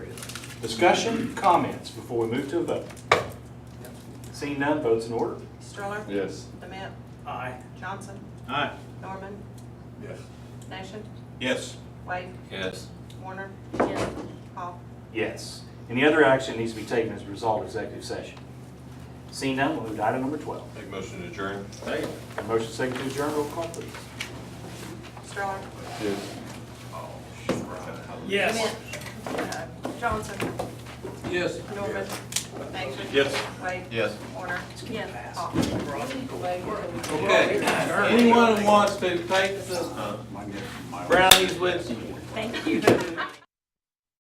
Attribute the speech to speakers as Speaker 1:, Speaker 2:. Speaker 1: Discussion, comments before we move to a vote? Seeing none, votes in order?
Speaker 2: Stroller?
Speaker 3: Yes.
Speaker 2: Dement?
Speaker 4: Aye.
Speaker 2: Johnson?
Speaker 4: Aye.
Speaker 2: Norman?
Speaker 3: Yes.
Speaker 2: Nation?
Speaker 4: Yes.
Speaker 2: Wade?
Speaker 5: Yes.
Speaker 2: Warner?
Speaker 6: yes,
Speaker 2: Hall?
Speaker 1: Yes. Any other action needs to be taken as a result of executive session? Seeing none, we'll move to item number 12.
Speaker 3: Make motion to adjourn.
Speaker 4: Second.
Speaker 1: A Motion second to adjourn, roll call please.
Speaker 2: Stroller?
Speaker 3: Yes. Oh,
Speaker 4: Yes.
Speaker 2: Dement? Uh, Johnson?
Speaker 5: Yes.
Speaker 2: Norman? Nation?
Speaker 3: Yes.
Speaker 2: Wade?
Speaker 3: Yes.
Speaker 2: Warner?
Speaker 6: yes.
Speaker 2: Hall?
Speaker 5: Okay. Anyone who wants to take the brownies with you?
Speaker 6: Thank you.